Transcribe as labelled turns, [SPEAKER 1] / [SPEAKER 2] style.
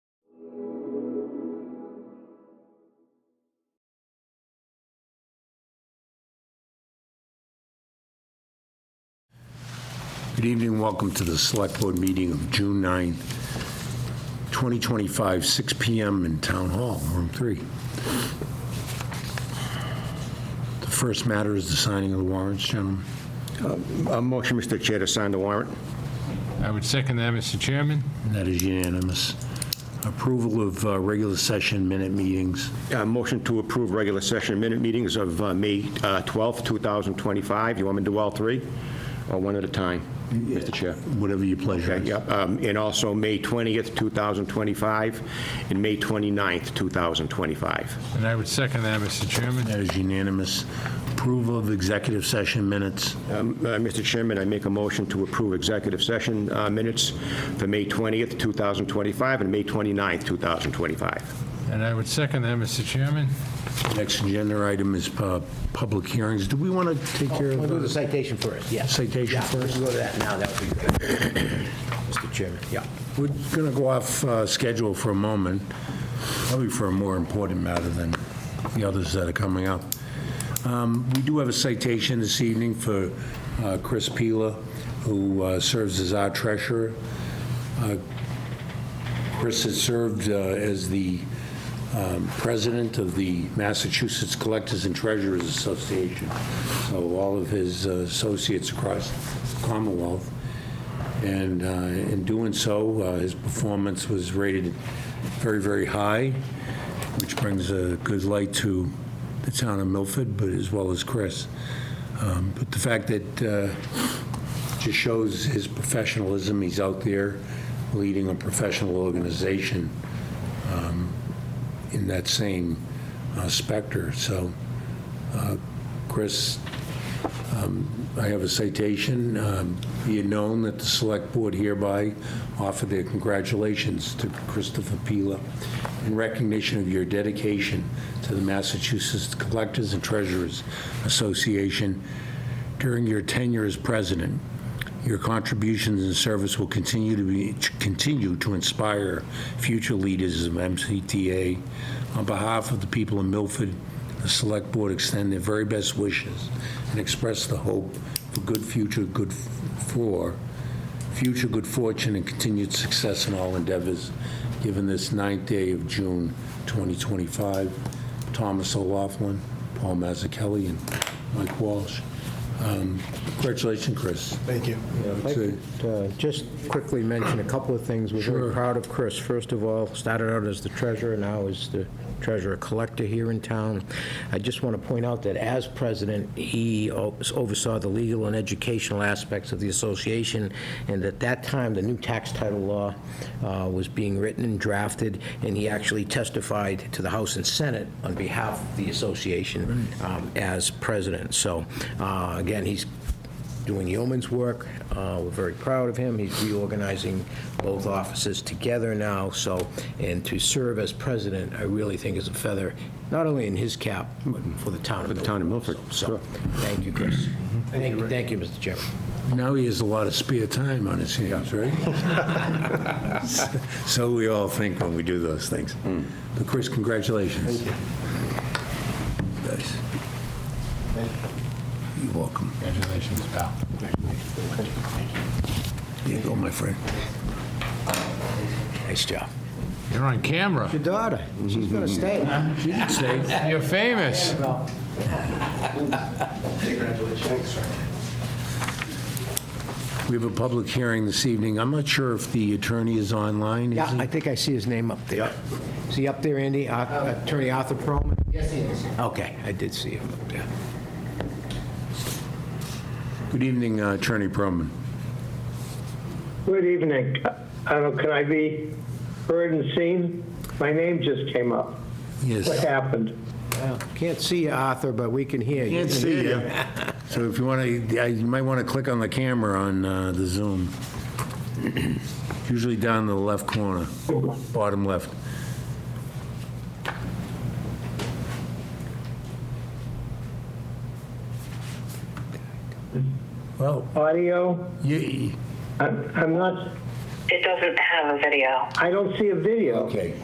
[SPEAKER 1] Good evening, welcome to the Select Board meeting of June 9, 2025, 6 PM in Town Hall, Room 3. The first matter is the signing of the warrants, gentlemen.
[SPEAKER 2] A Uh, motion, Mr. Chair, to sign the warrant.
[SPEAKER 3] I would second that, Mr. Chairman.
[SPEAKER 1] And That is unanimous. Approval of uh, regular session minute meetings.
[SPEAKER 2] Uh, Motion to approve regular session minute meetings of uh, May uh, 12th, 2025. You want me to do all three? Or one at a time, Mr. Chair?
[SPEAKER 1] Whatever your pleasure
[SPEAKER 2] Okay,
[SPEAKER 1] is.
[SPEAKER 2] yep, um, And also May 20th, 2025, and May 29th, 2025.
[SPEAKER 3] And I would second that, Mr. Chairman.
[SPEAKER 1] That is unanimous. Approval of executive session minutes.
[SPEAKER 2] Um, uh, Mr. Chairman, I make a motion to approve executive session uh, minutes for May 20th, 2025, and May 29th, 2025.
[SPEAKER 3] And I would second that, Mr. Chairman.
[SPEAKER 1] Next agenda item is uh, public hearings. Do we want to take care
[SPEAKER 4] We'll
[SPEAKER 1] of
[SPEAKER 4] do the
[SPEAKER 1] the
[SPEAKER 4] citation first, yes.
[SPEAKER 1] citation
[SPEAKER 4] Yeah,
[SPEAKER 1] uh, first?
[SPEAKER 4] if we go to that now, that would be good. Mr. Chairman, yeah.
[SPEAKER 1] We're going to go off uh, schedule for a moment, probably for a more important matter than the others that are coming up. Um, We do have a citation this evening for uh, Chris Pila, who uh, serves as our treasurer. Uh, Chris has served uh, as the um, president of the Massachusetts Collectors and Treasurers Association, so all of his uh, associates across the Commonwealth. And uh, in doing so, uh, his performance was rated very, very high, which brings a good light to the town of Milford, but as well as Chris. Um, But the fact that uh, just shows his professionalism, he's out there leading a professional organization um, in that same uh, specter. So, uh, Chris, I have a citation. Um, Be it known that the Select Board hereby offer their congratulations to Christopher Pila in recognition of your dedication to the Massachusetts Collectors and Treasurers Association during your tenure as president. Your contributions and service will continue to be, to continue to inspire future leaders of MCTA. On behalf of the people of Milford, the Select Board extend their very best wishes and express the hope for good future, good for, future good fortune and continued success in all endeavors, given this ninth day of June 2025. Thomas O'Laughlin, Paul Mazzucchelli, and Mike Walsh. Um, Congratulations, Chris.
[SPEAKER 5] Thank you.
[SPEAKER 4] If I could, uh, Just quickly mention a couple of things. We're
[SPEAKER 1] Sure.
[SPEAKER 4] very proud of Chris. First of all, started out as the treasurer, now is the treasurer collector here in town. I just want to point out that as president, he o- oversaw the legal and educational aspects of the association, and at that time, the new tax title law uh, was being written and drafted, and he actually testified to the House and Senate on behalf of the association um, as president. So, uh, again, he's doing yeoman's work. Uh, We're very proud of him. He's reorganizing both offices together now, so, and to serve as president, I really think is a feather, not only in his cap, but for the town of Milford. For the
[SPEAKER 2] town of Milford,
[SPEAKER 4] So, thank you, Chris. Mm-hmm. Thank you, thank you, Mr. Chairman.
[SPEAKER 1] Now he has a lot of spare time on his hands, right? So we all think when we do those things. But Chris, congratulations. Nice. You're welcome.
[SPEAKER 3] Congratulations, pal.
[SPEAKER 1] There you go, my friend.
[SPEAKER 4] Nice job.
[SPEAKER 3] You're on camera.
[SPEAKER 4] Your daughter, she's going to stay.
[SPEAKER 1] You can say,
[SPEAKER 3] You're famous.
[SPEAKER 1] we have a public hearing this evening. I'm not sure if the attorney is online. is
[SPEAKER 4] Yeah,
[SPEAKER 1] he?
[SPEAKER 4] I think I see his name up there. Is he up there, Andy? Uh, Attorney Arthur Perlman? Yes, he is. Okay, I did see him up there.
[SPEAKER 1] Good evening, uh, Attorney Perlman.
[SPEAKER 6] Good evening. Uh, Can I be heard and seen? My name just came up.
[SPEAKER 1] Yes.
[SPEAKER 6] What happened?
[SPEAKER 4] Well, Can't see you, Arthur, but we can hear you.
[SPEAKER 1] Can't see you. So if you want to, you might want to click on the camera on uh, the Zoom. Usually down in the left corner, bottom left. Well,
[SPEAKER 6] Audio?
[SPEAKER 1] you,
[SPEAKER 6] I'm I'm not,
[SPEAKER 7] It doesn't have a video.
[SPEAKER 6] I don't see a video.
[SPEAKER 1] okay.